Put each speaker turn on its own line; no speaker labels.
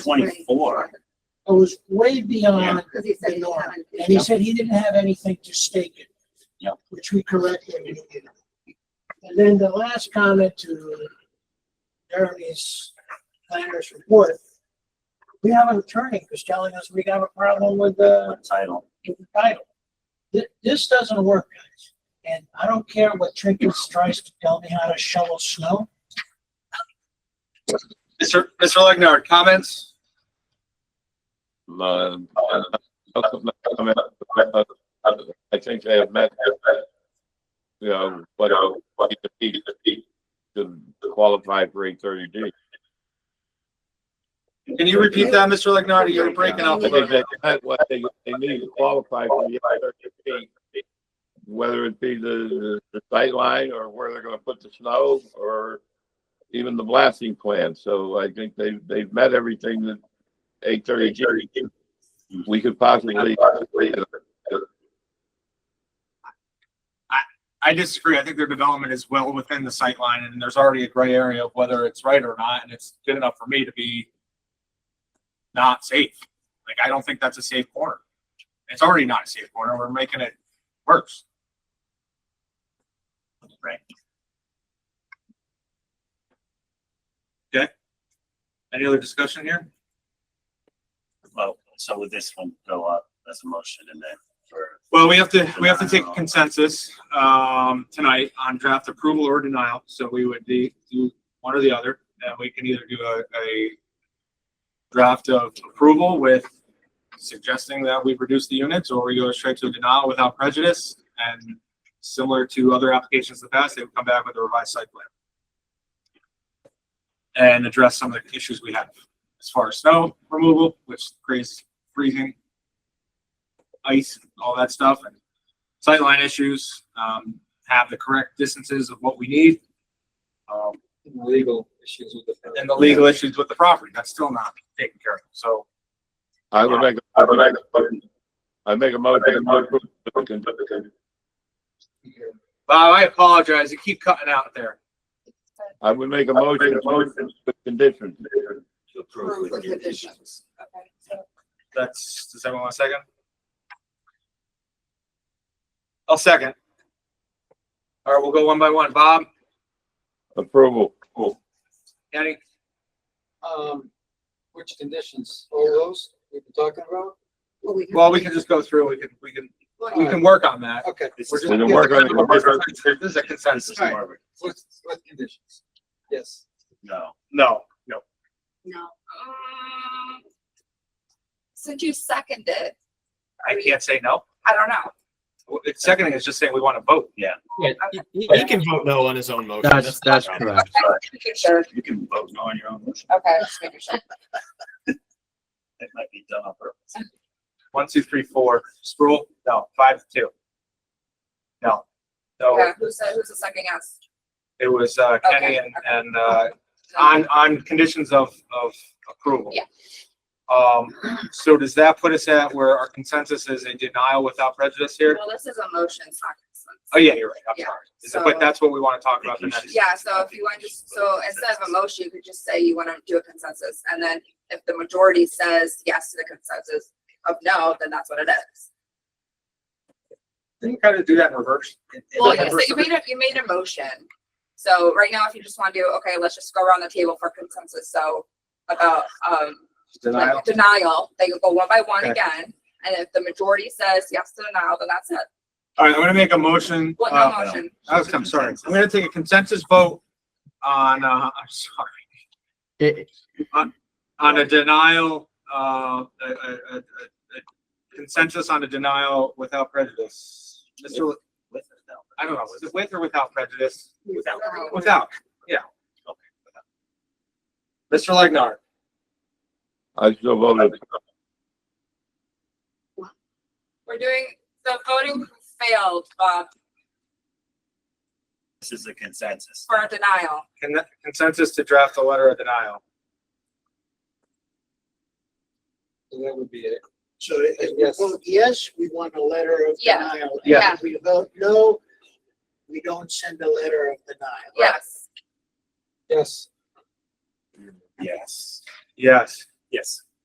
twenty-four. It was way beyond,
Because he said
The
he
norm.
happened.
and he said he didn't have anything to stake it.
Yep.
Which we corrected. And then the last comment to Jeremy's planner's report. We have an attorney who's telling us we got a problem with the
title.
with the title. This, this doesn't work, guys. And I don't care what Trinkus tries to tell me how to shovel snow.
Mr. Mr. Legnar, comments?
Uh, I mean, I- I- I think they have met, you know, but, but he, he should qualify for eight thirty D.
Can you repeat that, Mr. Legnar? You're breaking
I
up a little
think
bit.
they, met what they, they need to qualify for the eight thirty D. Whether it be the, the sightline or where they're gonna put the snow or even the blasting plan. So I think they, they've met everything that eight thirty G we could possibly.
I disagree. I think their development is well within the sightline and there's already a gray area of whether it's right or not, and it's good enough for me to be not safe. Like, I don't think that's a safe corner. It's already not a safe corner. We're making it worse. Right. Okay. Any other discussion here?
Well, so would this one go up as a motion and then for,
Well, we have to, we have to take consensus, um, tonight on draft approval or denial, so we would de- do one or the other. And we can either do a, a draft of approval with suggesting that we reduce the units, or we go straight to a denial without prejudice. And similar to other applications in the past, they would come back with a revised site plan. And address some of the issues we have as far as snow removal, which creates freezing ice, all that stuff, and sightline issues, um, have the correct distances of what we need. Um,
legal issues with the.
and the legal issues with the property, that's still not taken care of, so.
I would make, I would make, I make a motion.
Bob, I apologize, you keep cutting out there.
I would make a motion with conditions.
Approve with conditions. Okay, so
That's, does everyone want a second? I'll second. All right, we'll go one by one. Bob,
Approval.
Kenny,
Um, which conditions, all those we've been talking about?
Well, we.
well, we can just go through, we can, we can, we can work on that.
Okay,
We're just-
We can work on it.
This is a consensus.
All right.
Marbury?
what, what conditions? Yes,
No.
No, no.
No. Um, Since you seconded,
I can't say no.
I don't know.
Well, it's- Seconding is just saying we want to vote. Yeah.
Yeah, he- he he can vote no on his own motion.
That's, that's
fine.
correct.
Okay, just making sure.
You can vote no on your own motion.
Okay, just making sure.
It might be done on purpose.
One, two, three, four. Spruill, no. Five, two. No. So
Okay, who's, who's the second yes?
it was, uh, Kenny and, and, uh, on, on conditions of, of approval.
Yeah.
Um, so does that put us at where our consensus is a denial without prejudice here?
Well, this is a motion, it's not
Oh,
consensus.
yeah, you're right. I'm
Yeah,
sorry. Is it-
so-
But that's what we want to talk about the next.
Yeah, so if you want to, so instead of a motion, you could just say you want to do a consensus, and then if the majority says yes to the consensus of no, then that's what it is.
Then you kind of do that in reverse.
Well, you said you made a, you made a motion. So right now, if you just want to do, okay, let's just go around the table for consensus, so about, um, like,
Denial.
Denial, they go one by one
Okay.
again, and if the majority says yes to denial, then that's it.
All right, I'm gonna make a motion.
What,
uh,
no motion?
I was, I'm sorry. I'm gonna take a consensus vote on, uh, I'm sorry,
It,
on a denial, uh, a, a, a, a consensus on a denial without prejudice. Mr. Le-
With it, no.
I don't know, was it with or without prejudice?
Without.
Without, yeah. Mr. Legnar,
I still voted.
We're doing, the voting failed, uh, Bob,
This is a consensus.
for a denial.
con- consensus to draft a letter of denial.
so that would be it.
So if we
Yes.
vote yes, we want a letter of
Yeah.
denial. And
Yeah.
If we vote no, we don't send a letter of denial.
Yes.
Yes,
Yes.
Yes.
Yes.